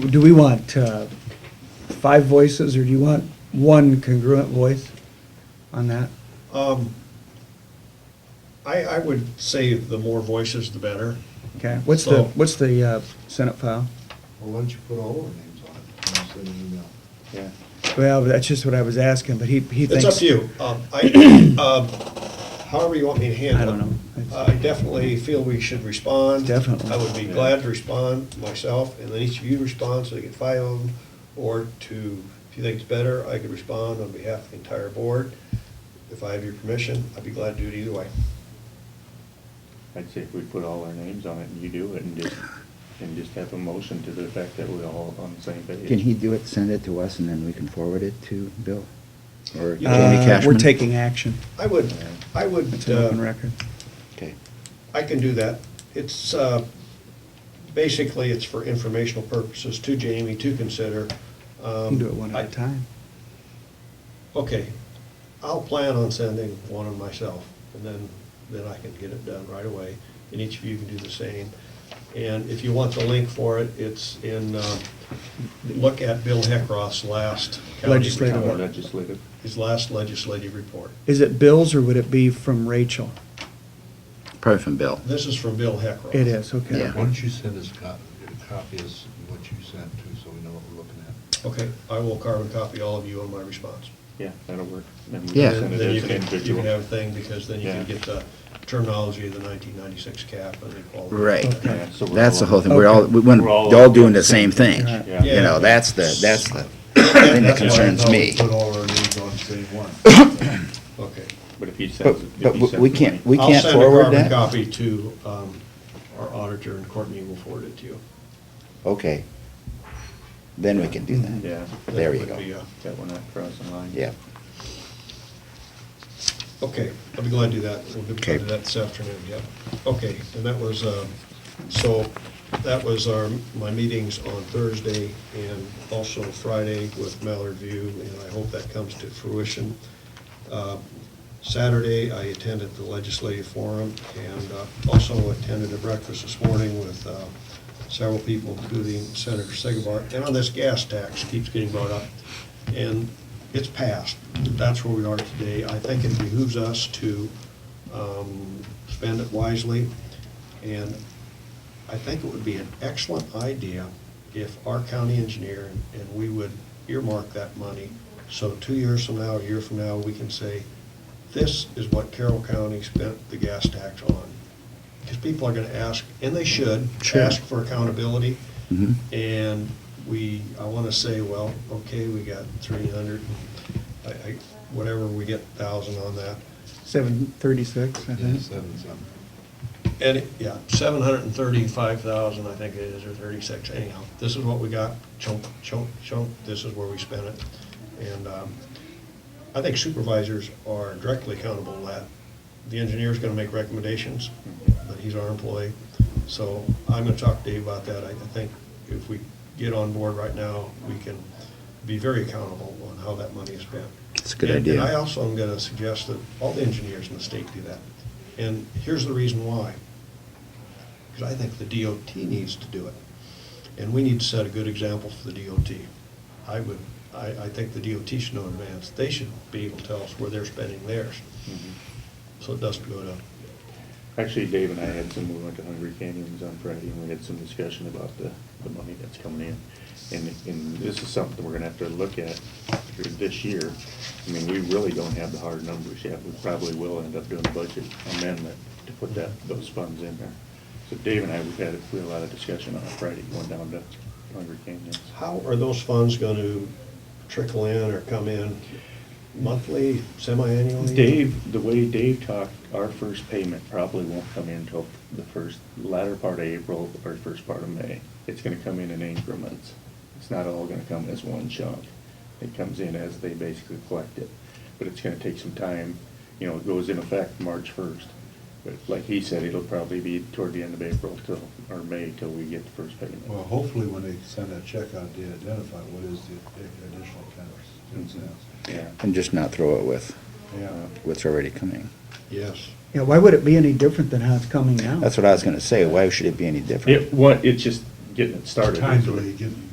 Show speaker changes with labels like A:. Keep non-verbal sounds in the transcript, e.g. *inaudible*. A: Do we want uh, five voices, or do you want one congruent voice on that?
B: Um, I, I would say the more voices, the better.
A: Okay, what's the,
B: So-
A: what's the uh, Senate file?
C: Well, why don't you put all our names on it and send an email?
A: Yeah. Well, that's just what I was asking, but he, he thinks.
B: It's up to you. Um,
A: *clears throat*
B: I, um, however you want me to handle it.
A: I don't know.
B: I definitely feel we should respond.
A: Definitely.
B: I would be glad to respond myself, and then each of you respond, so you get five of them, or to, if you think it's better, I could respond on behalf of the entire board. If I have your permission, I'd be glad to do it either way.
D: I'd say if we put all our names on it and you do it and just, and just have a motion to the fact that we're all on the same page.
E: Can he do it, send it to us, and then we can forward it to Bill? Or Jamie
A: Uh,
E: Cashman?
A: We're taking action.
B: I would, I would.
A: It's an open
B: uh,
A: record.
E: Okay.
B: I can do that. It's, uh, basically, it's for informational purposes to Jamie to consider.
A: You
B: um,
A: can do it one at a time.
B: Okay, I'll plan on sending one of myself, and then, then I can get it done right away, and each of you can do the same. And if you want the link for it, it's in, uh, look at Bill Heckroth's last county
A: Legislative.
D: Or
B: report,
D: Legislative.
B: His last legislative report.
A: Is it Bill's, or would it be from Rachel?
E: Probably from Bill.
B: This is from Bill Heckroth.
A: It is, okay.
E: Yeah.
C: Why don't you send us co- a copy of s- what you sent too, so we know what we're looking at?
B: Okay, I will carbon copy all of you on my response.
D: Yeah, that'll work. And we
B: Then
D: can
E: Yeah.
D: send it
B: then you
D: as an
B: can, you
D: individual.
B: can have a thing, because then you can
D: Yeah.
B: get the terminology of the nineteen ninety-six cap and equality.
E: Right.
D: Yeah, so we're
E: That's
D: all-
E: the whole thing. We're all,
A: Okay.
E: we want,
D: We're all-
E: all doing the same thing.
A: Right.
D: Yeah.
E: You know, that's the,
B: *coughs*
E: that's the thing that
B: That's why I
E: concerns
B: thought
E: me.
C: Put all our names on the same
E: *coughs*
C: one.
B: Okay.
D: But if he
E: But,
D: sends, it-
E: but
D: if he sends.
E: we
D: it
E: can't,
D: right-
E: we can't
B: I'll
E: forward
B: send a
E: that?
B: carbon copy to um, our auditor, and Courtney will forward it to you.
E: Okay. Then we can do that.
D: Yeah,
B: That
E: There you
B: would
E: go.
B: be, uh,
D: that we're not crossing lines.
E: Yeah.
B: Okay, I'll be glad to do that. We'll be glad to
E: Okay.
B: do that this afternoon, yep. Okay, and that was, um, so that was our, my meetings on Thursday and also Friday with Mallard View, and I hope that comes to fruition. Uh, Saturday, I attended the legislative forum and uh, also attended a breakfast this morning with uh, several people, including Senator Sigebar. And on this gas tax keeps getting brought up, and it's passed. That's where we are today. I think it behooves us to um, spend it wisely. And I think it would be an excellent idea if our county engineer, and we would earmark that money, so two years from now, a year from now, we can say, this is what Carroll County spent the gas tax on. Because people are gonna ask, and they should,
A: Sure.
B: ask for accountability.
E: Mhm.
B: And we, I wanna say, well, okay, we got three hundred, I, I, whatever, we get thousand on that.
A: Seven thirty-six, I
C: Yeah,
A: think.
C: seven, seven.
B: And, it- yeah, seven hundred and thirty-five thousand, I think it is, or thirty-six, anyhow. This is what we got, chunk, chunk, chunk, this is where we spent it. And, um, I think supervisors are directly accountable to that. The engineer's gonna make recommendations, but he's our employee. So I'm gonna talk to Dave about that. I, I think if we get on board right now, we can be very accountable on how that money is spent.
E: It's a good
B: And- And I
E: idea.
B: also am gonna suggest that all the engineers in the state do that. And here's the reason why. Because I think the DOT needs to do it. And we need to set a good example for the DOT. I would, I, I think the DOT should know in advance. They should be able to tell us where they're spending theirs,
D: Mhm.
B: so it doesn't go to,
D: Actually, Dave and I had some, we went to Hungry Canyons on Friday, and we had some discussion about the, the money that's coming in. And, and this is something we're gonna have to look at for this year. I mean, we really don't have the hard numbers yet. We probably will end up doing a budget amendment to put that, those funds in there. So Dave and I, we had, we had a lot of discussion on Friday, going down to Hungry Canyons.
B: how are those funds gonna trickle in or come in monthly, semi-annually?
D: Dave, the way Dave talked, our first payment probably won't come in until the first, latter part of April or first part of May. It's gonna come in in increments. It's not all gonna come as one chunk. It comes in as they basically collect it. But it's gonna take some time, you know, it goes in effect March first. But like he said, it'll probably be toward the end of April till, or May till we get the first payment.
C: Well, hopefully when they send that check out, they identify what is the additional ten cents.
D: Yeah.
E: And just not throw it with
C: Yeah.
E: what's already coming.
B: Yes.
A: Yeah, why would it be any different than how it's coming now?
E: That's what I was gonna say. Why should it be any different?
D: It, what, it's just getting it started.
C: Time delay, getting